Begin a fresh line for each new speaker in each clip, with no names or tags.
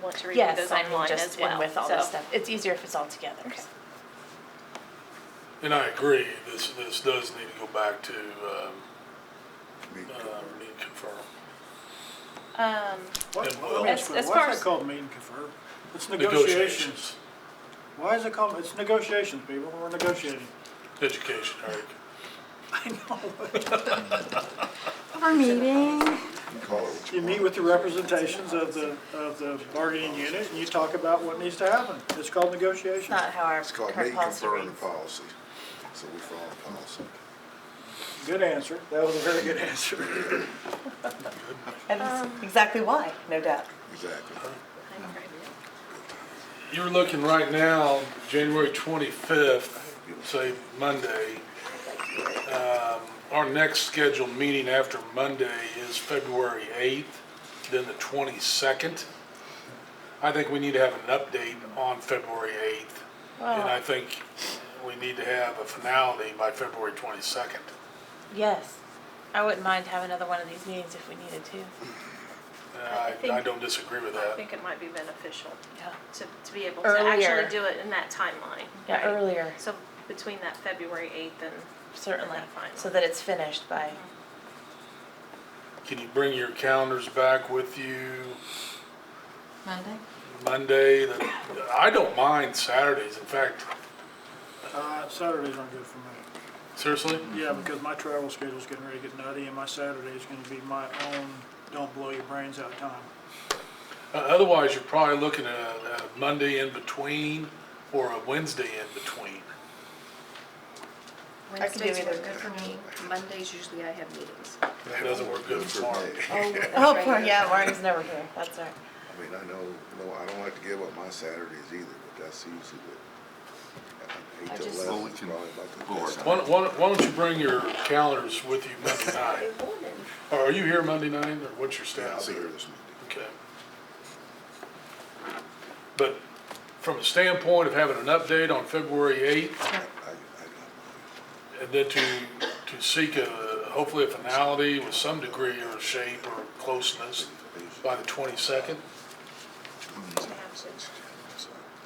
able to review
Yes,
those
I mean,
online as
just
well.
in with all this
so-
stuff. It's easier if it's all together.
Okay.
And I agree, this, this does need to go back to, um, um, need to confirm.
Um,
What,
And
let
will.
me ask
As-
you,
as
what's
far
that
as-
called, meet and confer? It's negotiations.
Negotiations,
Why is it called, it's negotiations, people, we're negotiating.
education, Eric.
I know.
Our meeting.
You meet with the representations of the, of the bargaining unit, and you talk about what needs to happen. It's called negotiations.
It's not how our
It's called
current
meeting
policy
confirming
reads.
the policy, so we follow the policy.
Good answer, that was a very good answer.
And that's exactly why, no doubt.
Exactly.
You're looking right now, January twenty-fifth, say Monday. Um, Our next scheduled meeting after Monday is February eighth, then the twenty-second. I think we need to have an update on February eighth, and I think we need to have a finality by February twenty-second.
Yes. I wouldn't mind having another one of these meetings if we needed to.
I,
think-
I don't disagree with
I
that.
think it might be beneficial
Yeah.
to, to be able to
Earlier.
actually do it in that timeline.
Yeah,
right?
earlier,
So between that February eighth and,
certainly,
That's fine.
so that it's finished by,
Can you bring your calendars back with you?
Monday?
Monday, the- I don't mind Saturdays, in fact,
Uh, Saturdays aren't good for me.
seriously,
Yeah, because my travel schedule's getting ready to get nutty, and my Saturday's gonna be my own don't blow your brains out time.
Uh, otherwise, you're probably looking at a a Monday in between or a Wednesday in between.
I
could do
Wednesdays
either.
work good for me. Mondays, usually I have meetings.
It doesn't work good for Mark.
me.
oh, poor, yeah, Marty's never here, that's all right.
I mean, I know, no, I don't like to give up my Saturdays either, but that's usually what, I- I
I
eight to
just-
Well,
eleven
we
is
can
probably like the
work
best.
on
Why don't- why don't why don't you bring your calendars with you Monday night? Or Are you here Monday night, or what's your
Yeah, I'll
status
be here
here?
this Monday.
Okay. But from a standpoint of having an update on February 8th,
I, I, I got
and then to, to seek a, hopefully a finality with some degree or shape or closeness by the 22nd,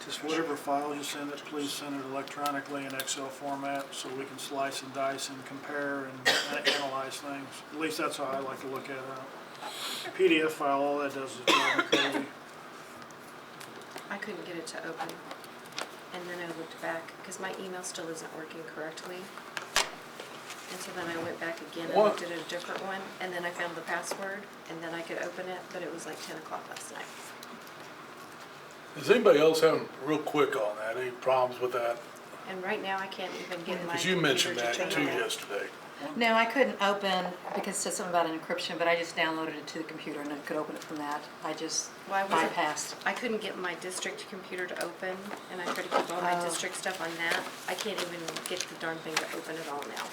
Just whatever file you send it, please send it electronically in Excel format so we can slice and dice and compare and analyze things. At least that's how I like to look at it. PDF file, all that does is drive me crazy.
I couldn't get it to open. And then I looked back, because my email still isn't working correctly. And so then I went back again and
What?
looked at a different one, and then I found the password, and then I could open it, but it was like ten o'clock last night.
Is anybody else having, real quick on that, any problems with that?
And right now, I can't even get my
Because you
computer
mentioned
to
that too
turn it on.
yesterday.
No, I couldn't open because it said something about an encryption, but I just downloaded it to the computer and I could open it from that. I just
Why was it-
bypassed.
I couldn't get my district computer to open, and I tried to keep all my
Oh.
district stuff on that. I can't even get the darn thing to open at all now.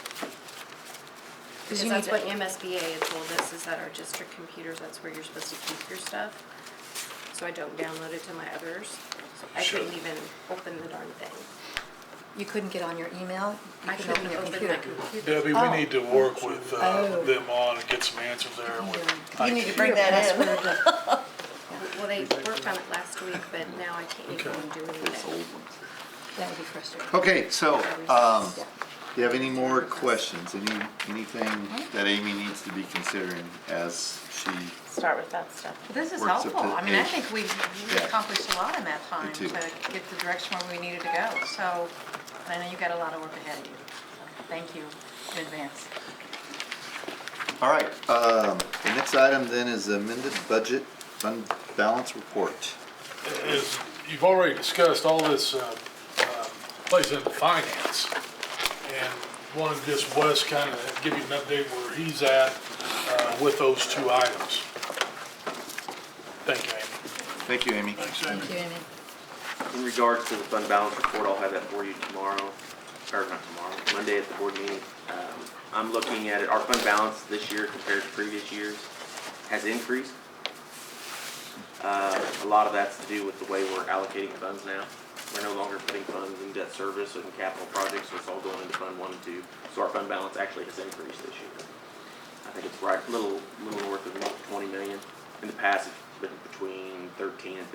Because
you
that's
need
what MSBA had told us, is that our district computers, that's where you're supposed to keep your stuff. So I don't download it to my others. So I
Sure.
couldn't even open the darn thing.
You couldn't get on your email? You
I
couldn't
couldn't
open your
open my
computer?
computer.
Debbie, we
Oh.
need to work with uh,
Oh.
them on and get some answers there with
You need to
IT.
bring that in.
Well, they worked on it last week, but now I can't even do anything.
That would be frustrating.
Okay, so, um,
Yeah.
do you have any more questions? Any, anything that Amy needs to be considering as she,
Start with that stuff.
This is
Works up
helpful.
to
I mean, I
eight.
think we we
Yeah.
accomplished a lot in that time to
too.
get the direction where we needed to go. So, and I know you've got a lot of work ahead of you. So, Thank you in advance.
all right, um, the next item then is amended budget fund balance report.
Is, you've already discussed all this uh, um, plays into finance. And wanted just Wes kind of give you an update where he's at uh, with those two items. Thank you, Amy.
Thank you, Amy.
Thank you, Amy.
Uh, In regards to the fund balance report, I'll have that for you tomorrow, or not tomorrow, Monday at the board meeting. Um, I'm looking at it, our fund balance this year compared to previous years has increased. Uh, A lot of that's to do with the way we're allocating funds now. We're no longer putting funds in debt service and capital projects, so it's all going into Fund One and Two. So our fund balance actually has increased this year. I think it's right, little, little north of twenty million. In the past, it's been between thirteen and